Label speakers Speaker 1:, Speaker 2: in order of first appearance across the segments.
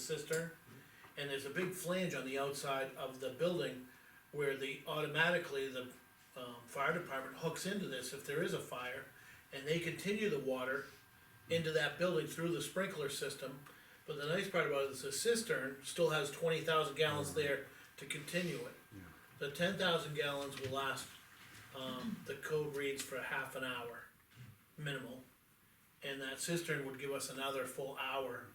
Speaker 1: cistern, and there's a big flange on the outside of the building where the, automatically, the, um, fire department hooks into this if there is a fire, and they continue the water into that building through the sprinkler system. But the nice part about it is the cistern still has twenty thousand gallons there to continue it. The ten thousand gallons will last, um, the code reads for half an hour, minimal. And that cistern would give us another full hour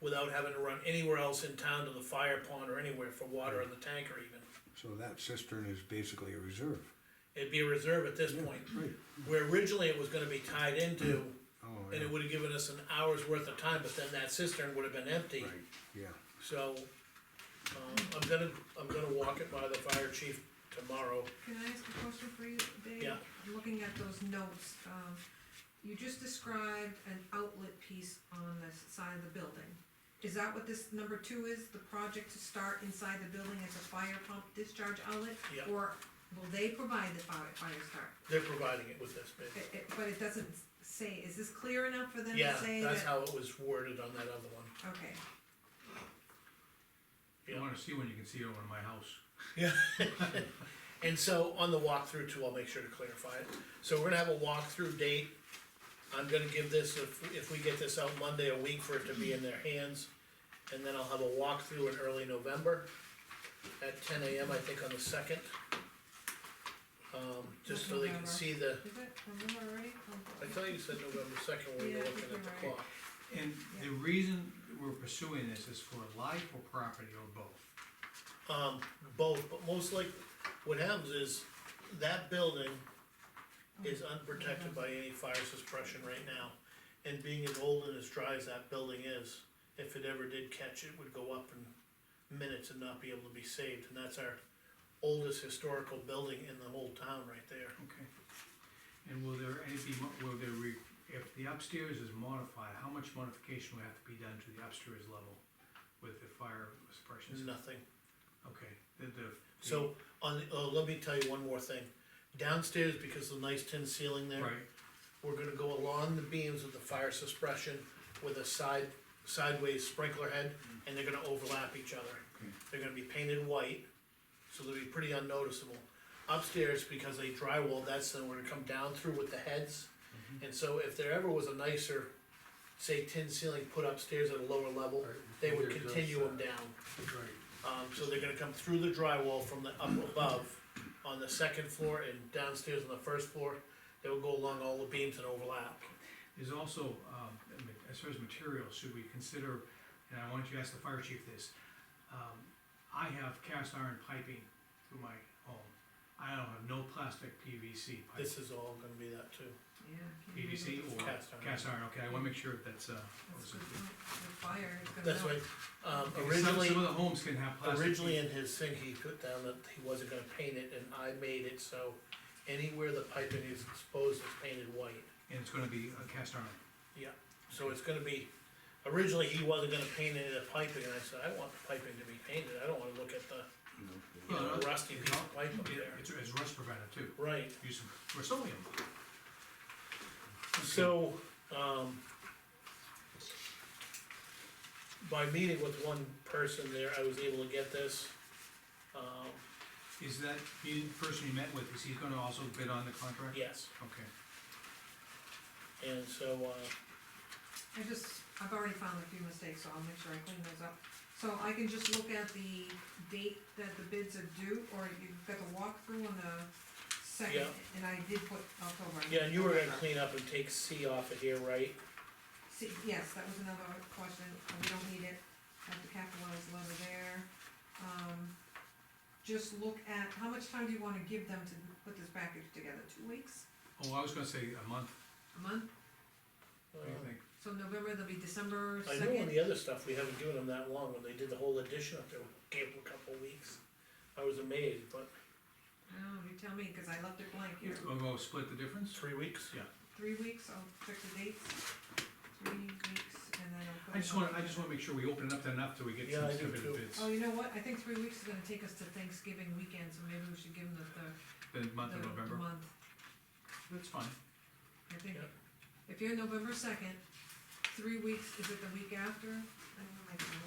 Speaker 1: without having to run anywhere else in town to the fire pond or anywhere for water in the tank or even.
Speaker 2: So that cistern is basically a reserve.
Speaker 1: It'd be a reserve at this point,
Speaker 2: Right.
Speaker 1: where originally it was gonna be tied into,
Speaker 2: Oh,
Speaker 1: and
Speaker 2: yeah,
Speaker 1: it would've given us an hour's worth of time, but then that cistern would've been empty.
Speaker 2: right, yeah.
Speaker 1: So, um, I'm gonna, I'm gonna walk it by the fire chief tomorrow.
Speaker 3: Can I ask a question for you, Dave?
Speaker 1: Yeah.
Speaker 3: Looking at those notes, um, you just described an outlet piece on the side of the building. Is that what this number two is, the project to start inside the building as a fire pump discharge outlet?
Speaker 1: Yeah.
Speaker 3: Or will they provide the fire, fire start?
Speaker 1: They're providing it with this bid.
Speaker 3: It- it- but it doesn't say, is this clear enough for them
Speaker 1: Yeah,
Speaker 3: to say that?
Speaker 1: that's how it was worded on that other one.
Speaker 3: Okay,
Speaker 1: Yeah.
Speaker 4: You wanna see one, you can see it over in my house.
Speaker 1: Yeah. And so on the walkthrough too, I'll make sure to clarify it. So we're gonna have a walkthrough date. I'm gonna give this, if, if we get this out Monday, a week for it to be in their hands. And then I'll have a walkthrough in early November at ten AM, I think on the second. Um, just so they can
Speaker 3: November.
Speaker 1: see the,
Speaker 3: is it, remember already?
Speaker 1: I thought you said November second, we
Speaker 3: Yeah,
Speaker 1: were
Speaker 3: I
Speaker 1: looking
Speaker 3: think
Speaker 1: at the
Speaker 3: you're right.
Speaker 1: clock.
Speaker 4: And the reason we're pursuing this is for life or property or both.
Speaker 1: Um, both, but most likely, what happens is, that building is unprotected by any fire suppression right now. And being as old and as dry as that building is, if it ever did catch, it would go up in minutes and not be able to be saved, and that's our oldest historical building in the whole town right there.
Speaker 4: Okay. And will there any be, mo- will there re, if the upstairs is modified, how much modification would have to be done to the upstairs level with the fire
Speaker 1: There's
Speaker 4: suppression?
Speaker 1: nothing.
Speaker 4: Okay, the, the.
Speaker 1: So, on, the- oh, let me tell you one more thing. Downstairs, because of the nice tin ceiling there.
Speaker 4: Right,
Speaker 1: We're gonna go along the beams with the fire suppression with a side, sideways sprinkler head, and they're gonna overlap each other.
Speaker 4: Okay.
Speaker 1: They're gonna be painted white, so they'll be pretty unnoticeable. Upstairs, because they drywall, that's then we're gonna come down through with the heads.
Speaker 4: Mm-hmm.
Speaker 1: And so if there ever was a nicer, say tin ceiling put upstairs at a lower level,
Speaker 4: Right.
Speaker 1: they would
Speaker 4: Yeah, it does,
Speaker 1: continue them
Speaker 4: uh,
Speaker 1: down.
Speaker 4: right.
Speaker 1: Um, so they're gonna come through the drywall from the up above on the second floor and downstairs on the first floor. They will go along all the beams and overlap.
Speaker 4: There's also, um, I mean, as far as materials, should we consider, and I want you to ask the fire chief this, um, I have cast iron piping through my home. I don't have no plastic PVC pipe,
Speaker 1: This is all gonna be that too.
Speaker 3: Yeah. I can't
Speaker 4: PVC
Speaker 3: remember.
Speaker 4: or
Speaker 1: Cast iron.
Speaker 4: cast iron, okay, I wanna make sure that's, uh. what
Speaker 3: That's
Speaker 4: was
Speaker 3: good,
Speaker 4: it?
Speaker 3: the fire is gonna.
Speaker 1: That's
Speaker 3: melt.
Speaker 1: why, um,
Speaker 4: Because some-
Speaker 1: originally,
Speaker 4: Some of the homes can have plastic.
Speaker 1: originally in his thing, he put down that he wasn't gonna paint it and I made it, so anywhere the piping is exposed is painted white.
Speaker 4: And it's gonna be a cast iron,
Speaker 1: Yeah, so it's gonna be, originally he wasn't gonna paint any of the piping and I said, I want the piping to be painted. I don't wanna look at the, you
Speaker 4: Well,
Speaker 1: know,
Speaker 4: no,
Speaker 1: rusty piece of pipe up
Speaker 4: it,
Speaker 1: there.
Speaker 4: it's, it's rust preventive too,
Speaker 1: Right,
Speaker 4: use some Rust-Oleum.
Speaker 1: So, um, by meeting with one person there, I was able to get this. Um,
Speaker 4: Is that, the person you met with, is he gonna also bid on the contract?
Speaker 1: yes,
Speaker 4: Okay.
Speaker 1: and so, uh,
Speaker 3: I just, I've already found a few mistakes, so I'll make sure I clean those up. So I can just look at the date that the bids are due, or you've got the walkthrough on the second,
Speaker 1: Yeah.
Speaker 3: and I did put October. Uh,
Speaker 1: yeah, and you were gonna clean up and take C off of here, right?
Speaker 3: See, yes, that was another question, Uh, we don't need it, I have to capitalize it over there. Um, just look at, how much time do you wanna give them to put this package together, two weeks,
Speaker 4: Oh, I was gonna say a month,
Speaker 3: a month?
Speaker 1: Uh,
Speaker 4: what do you think?
Speaker 3: So November, there'll be December
Speaker 1: I know on
Speaker 3: second,
Speaker 1: the other stuff, we haven't given them that long, when they did the whole edition up there, we gave them a couple of weeks. I was amazed, but
Speaker 3: oh, you tell me, cause I left it blank here.
Speaker 4: We'll go split the difference?
Speaker 1: three weeks, yeah.
Speaker 3: three weeks, I'll check the dates, three weeks, and then I'll put.
Speaker 4: I just
Speaker 3: it on
Speaker 4: wanna, I just wanna make sure we open it up to enough till we get
Speaker 1: Yeah, I
Speaker 4: some
Speaker 1: do too.
Speaker 4: stupid bids,
Speaker 3: Oh, you know what, I think three weeks is gonna take us to Thanksgiving weekend, so maybe we should give them the, the.
Speaker 4: the month of
Speaker 3: the- the
Speaker 4: November,
Speaker 3: Month,
Speaker 4: that's fine.
Speaker 3: I think,
Speaker 1: Yeah.
Speaker 3: if you're November second, three weeks, is it the week after? I don't know, my calendar.